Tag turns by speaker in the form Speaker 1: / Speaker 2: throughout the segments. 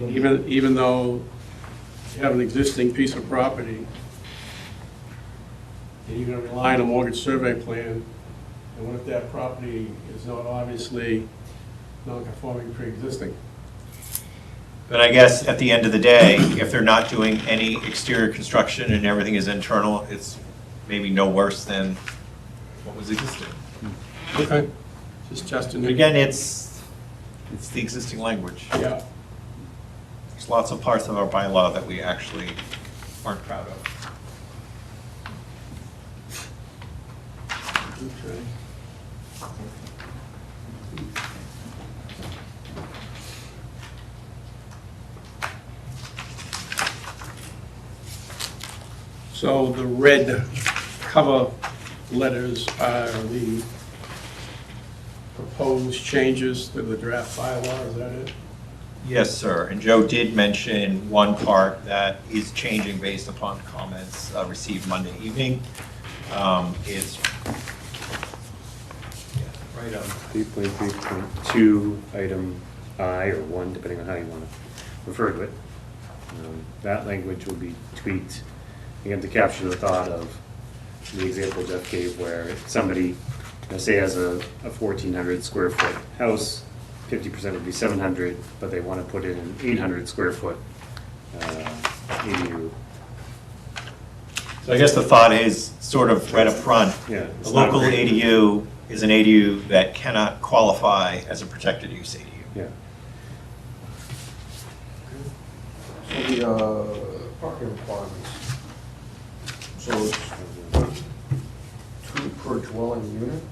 Speaker 1: even, even though you have an existing piece of property, and you're gonna rely on a mortgage survey plan, and what if that property is not obviously non-conforming pre-existing?
Speaker 2: But I guess at the end of the day, if they're not doing any exterior construction and everything is internal, it's maybe no worse than what was existing.
Speaker 1: Okay. Just testing
Speaker 2: But
Speaker 1: it.
Speaker 2: Again, it's, it's the existing language.
Speaker 1: Yeah,
Speaker 2: There's lots of parts of our bylaw that we actually aren't proud of.
Speaker 1: okay. So the red cover letters are the proposed changes to the draft bylaw, is that it?
Speaker 2: Yes, sir. And Joe did mention one part that is changing based upon comments uh, received Monday evening. Um, It's yeah, right on.
Speaker 3: 3.3.2, item I or 1, depending on how you want to refer to it. Um, That language will be tweaked, again, to capture the thought of the example Jeff gave where somebody, you know, say has a a 1,400 square foot house, 50% would be 700, but they want to put in an 800 square foot uh, ADU.
Speaker 2: So I guess the thought is, sort of right up front,
Speaker 3: Yeah,
Speaker 2: a
Speaker 3: it's not
Speaker 2: local
Speaker 3: great.
Speaker 2: ADU is an ADU that cannot qualify as a protected use ADU.
Speaker 3: Yeah,
Speaker 4: So the uh, parking requirements. So it's two per dwelling unit?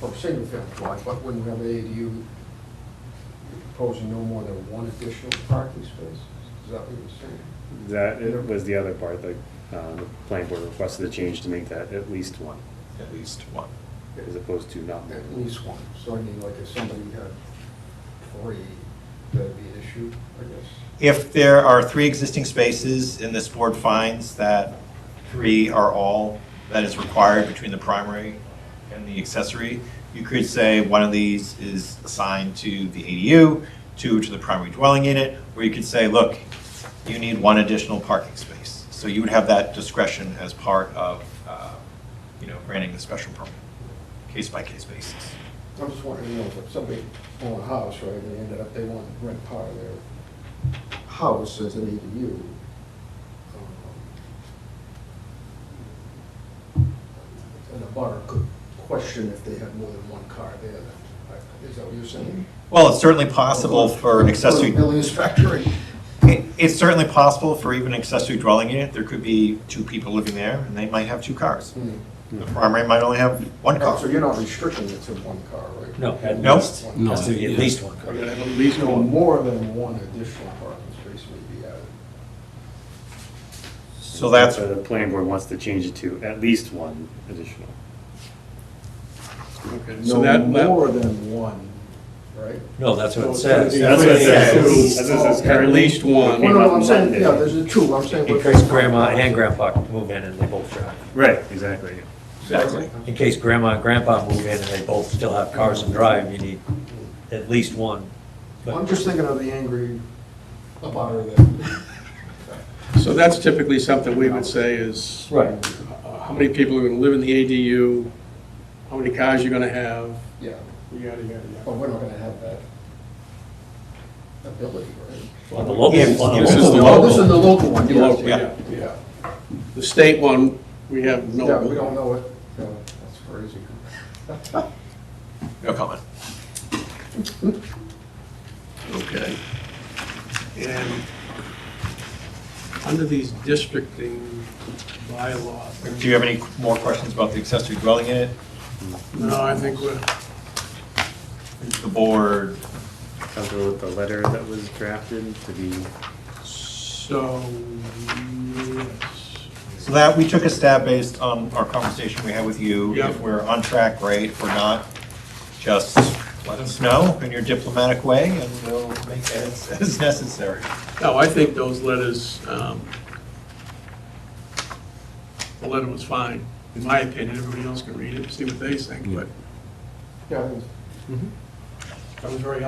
Speaker 4: For single family dwelling, but when we have ADU, you're proposing no more than one additional parking space? Is that what you're saying?
Speaker 3: that was the other part, like, uh, the planning board requested a change to make that at least one.
Speaker 2: At least one.
Speaker 3: as opposed to not. more.
Speaker 4: At least one. So I mean, like if somebody had three, that'd be an issue, I guess.
Speaker 2: If there are three existing spaces and this board finds that three are all that is required between the primary and the accessory, you could say one of these is assigned to the ADU, two to the primary dwelling unit, or you could say, look, you need one additional parking space. So you would have that discretion as part of, uh, you know, granting the special permit, case by case basis.
Speaker 4: I'm just wondering, you know, if somebody owned a house, right, and they ended up, they want to rent part of their house as an E ADU. um, And the butter could question if they had more than one car there, then, I- is that what you're saying?
Speaker 2: Well, it's certainly possible for an accessory.
Speaker 4: For a building inspector, and-
Speaker 2: It- It's certainly possible for even an accessory dwelling unit, there could be two people living there, and they might have two cars.
Speaker 4: Hmm.
Speaker 2: The primary might only have one car.
Speaker 4: So you're not restricting it to one car, right?
Speaker 5: No, at
Speaker 2: No.
Speaker 5: least,
Speaker 4: No.
Speaker 5: has to be at least one
Speaker 1: I
Speaker 5: car.
Speaker 1: mean, at least
Speaker 4: So
Speaker 1: one.
Speaker 4: more than one additional parking space would be added.
Speaker 2: So that's,
Speaker 3: So The planning board wants to change it to at least one additional.
Speaker 1: Okay, so
Speaker 4: No
Speaker 1: that- that-
Speaker 4: more than one, right?
Speaker 5: No, that's what it
Speaker 1: So it's gonna
Speaker 5: says.
Speaker 1: be
Speaker 3: That's what it says.
Speaker 1: two.
Speaker 3: That's what it says
Speaker 1: At
Speaker 3: currently.
Speaker 1: least one.
Speaker 4: Well, no, I'm saying,
Speaker 3: Monday.
Speaker 4: yeah, there's a two, I'm saying.
Speaker 5: In case grandma and grandpa move in and they both drive.
Speaker 3: Right, exactly.
Speaker 2: Exactly.
Speaker 5: In case grandma and grandpa move in and they both still have cars and drive, you need at least one.
Speaker 4: I'm
Speaker 5: But
Speaker 4: just thinking of the angry abutter that,
Speaker 1: So that's typically something we would say is.
Speaker 5: Right.
Speaker 1: uh, How many people are going to live in the ADU? How many cars you're going to have?
Speaker 4: yeah,
Speaker 1: Yada, yada,
Speaker 4: but
Speaker 1: yada.
Speaker 4: we're not gonna have that ability, right?
Speaker 5: on the local,
Speaker 2: Yeah,
Speaker 5: on
Speaker 2: this
Speaker 5: the
Speaker 2: is
Speaker 5: local,
Speaker 2: the
Speaker 4: Oh, this is
Speaker 5: local.
Speaker 4: the local one,
Speaker 1: The
Speaker 4: yes,
Speaker 1: local,
Speaker 4: yeah.
Speaker 1: yeah, yeah. The state one, we have no.
Speaker 4: Yeah, we don't know it, Yeah, that's crazy.
Speaker 2: no comment.
Speaker 1: Okay. And under these districting bylaws.
Speaker 2: Do you have any more questions about the accessory dwelling unit?
Speaker 1: No, I think we're,
Speaker 2: Is The board,
Speaker 3: Comfortable with the letter that was drafted to be,
Speaker 1: so, yes.
Speaker 2: so that, we took a stab based on our conversation we had with you.
Speaker 1: Yeah.
Speaker 2: If we're on track, great. If we're not, just let us know in your diplomatic way, and we'll make edits as necessary.
Speaker 1: No, Oh, I think those letters, um, the letter was fine, in my opinion. Everybody else can read it, see what they think, but
Speaker 4: Yeah, I think it's
Speaker 1: that was very